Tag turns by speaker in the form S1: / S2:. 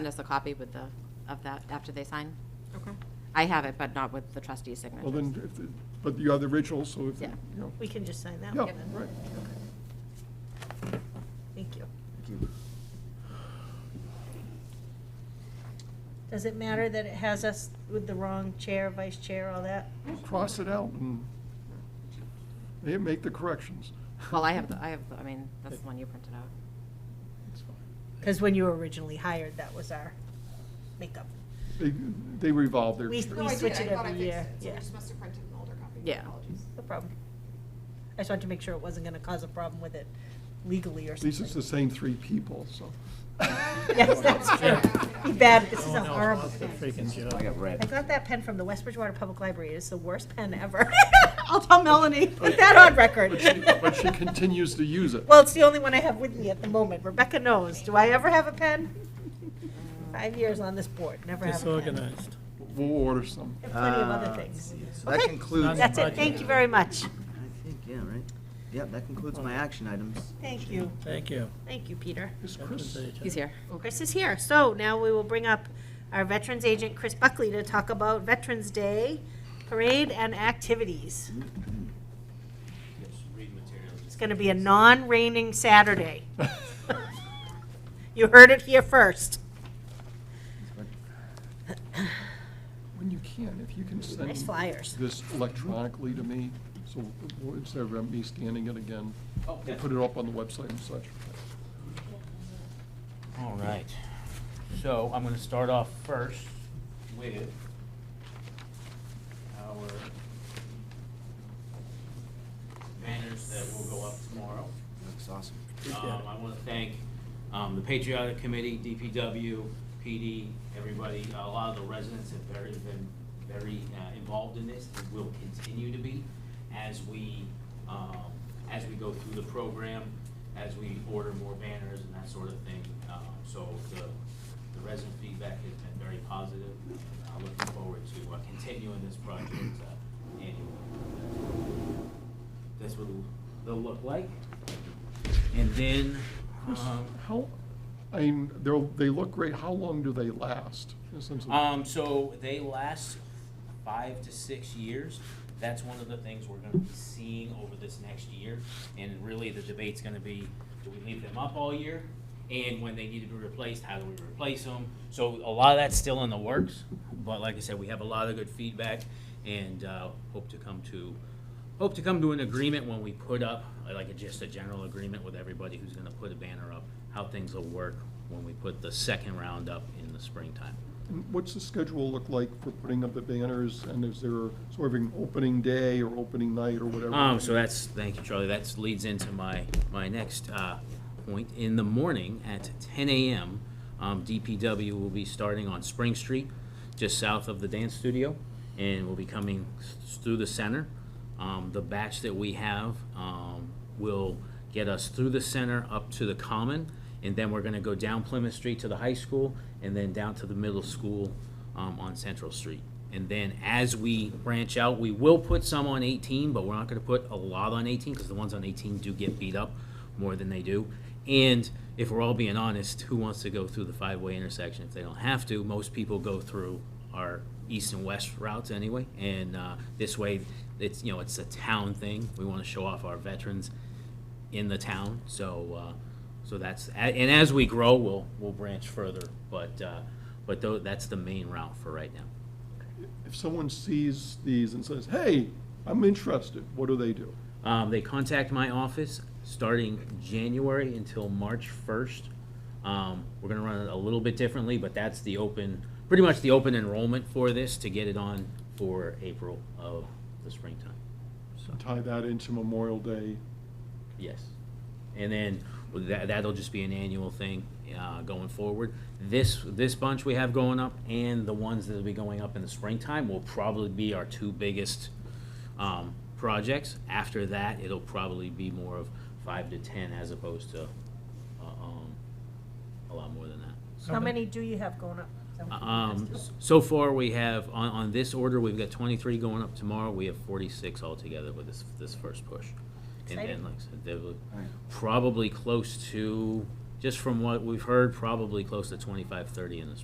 S1: send us a copy with the, of that, after they sign?
S2: Okay.
S1: I have it, but not with the trustee's signature.
S3: Well, then, if, the- but you have the original, so if, you
S1: Yeah.
S3: know,
S2: We can just sign that
S3: yeah,
S2: one then.
S3: right.
S2: Thank you.
S4: Thank you.
S2: Does it matter that it has us with the wrong chair, vice chair, all that?
S3: Cross it out and they make the corrections.
S1: Well, I have, the I have, the I mean, that's the one you printed out.
S3: It's fine.
S2: Because when you were originally hired, that was our makeup.
S3: They, they revolve their.
S2: We-
S5: No, I did,
S2: switch
S5: I
S2: it
S5: thought I
S2: every
S5: fixed
S2: year,
S5: it, so
S2: yeah.
S5: you just must have printed an older copy.
S1: Yeah.
S5: Apologies.
S2: No problem. I just wanted to make sure it wasn't going to cause a problem with it legally or
S3: At least
S2: something.
S3: it's the same three people, so.
S2: Yes, that's true. Be bad, this is a horrible.
S6: That's a freaking joke.
S4: I got
S2: I
S4: red.
S2: got that pen from the West Bridgewater Public Library. It's the worst pen ever. I'll tell Melanie, put that on record.
S3: But she- But she continues to use it.
S2: Well, it's the only one I have with me at the moment. Rebecca knows. Do I ever have a pen? Five years on this board, never have a pen.
S6: Disorganized.
S3: We'll order some.
S2: And Plenty of other things.
S4: Uh, So that
S2: Okay.
S4: concludes, I
S2: That's it. Thank you very much.
S4: think, yeah, right? Yep, that concludes my action items.
S2: Thank you.
S6: Thank you.
S2: Thank you, Peter.
S3: Is Chris,
S1: He's here.
S2: Chris is here. So now we will bring up our Veterans Agent, Chris Buckley, to talk about Veterans Day Parade and activities. It's going to be a non-raining Saturday. You heard it here first.
S3: when you can, if you can send.
S2: Nice flyers.
S3: This electronically to me, so w- instead of me scanning it again, we'll put it up on the website and such.
S7: All right. So I'm going to start off first with our banners that will go up tomorrow.
S4: Looks awesome.
S7: Um, I want to thank, um, the Patriotic Committee, DPW, PD, everybody, a lot of the residents have very, been very, uh, involved in this, and will continue to be as we, um, as we go through the program, as we order more banners and that sort of thing. Um, so the, the resident feedback has been very positive, and I'm looking forward to uh, continuing this project, uh, annually. That's what it'll, it'll look like. And then, um,
S3: How, I mean, they're, they look great, how long do they last? In the sense of-
S7: um, so they last five to six years. That's one of the things we're gonna be seeing over this next year. And really, the debate's gonna be, do we leave them up all year? And when they need to be replaced, how do we replace them? So a lot of that's still in the works, but like I said, we have a lot of good feedback and, uh, hope to come to, hope to come to an agreement when we put up, like a- just a general agreement with everybody who's gonna put a banner up, how things will work when we put the second round up in the springtime.
S3: And What's the schedule look like for putting up the banners, and is there sort of an opening day or opening night or whatever?
S7: Um, so that's, thank you, Charlie, that's leads into my, my next, uh, point. In the morning at ten AM, um, DPW will be starting on Spring Street, just south of the dance studio, and will be coming s- through the center. Um, the batch that we have, um, will get us through the center up to the common, and then we're gonna go down Plymouth Street to the high school, and then down to the middle school, um, on Central Street. And then as we branch out, we will put some on eighteen, but we're not gonna put a lot on eighteen, because the ones on eighteen do get beat up more than they do. And if we're all being honest, who wants to go through the five-way intersection if they don't have to? Most people go through our east and west routes anyway, and, uh, this way, it's, you know, it's a town thing. We wanna show off our veterans in the town. So, uh, so that's a- and as we grow, we'll we'll branch further. But uh, but tho- that's the main route for right now.
S3: If someone sees these and says, hey, I'm interested, what do they do?
S7: Um, they contact my office starting January until March first. Um, we're gonna run it a little bit differently, but that's the open, pretty much the open enrollment for this to get it on for April of the springtime. So.
S3: Tie that into Memorial Day.
S7: Yes. And then that, that'll just be an annual thing, uh, going forward. This, this bunch we have going up and the ones that'll be going up in the springtime will probably be our two biggest, um, projects. After that, it'll probably be more of five to ten as opposed to, uh, um, a lot more than that.
S2: How many do you have going up?
S7: Um, so far, we have, on, on this order, we've got twenty-three going up tomorrow, we have forty-six altogether with this, this first push. And
S2: Exciting.
S7: then, like I said, they will
S4: Alright.
S7: probably close to just from what we've heard, probably close to 25, 30 in the spring.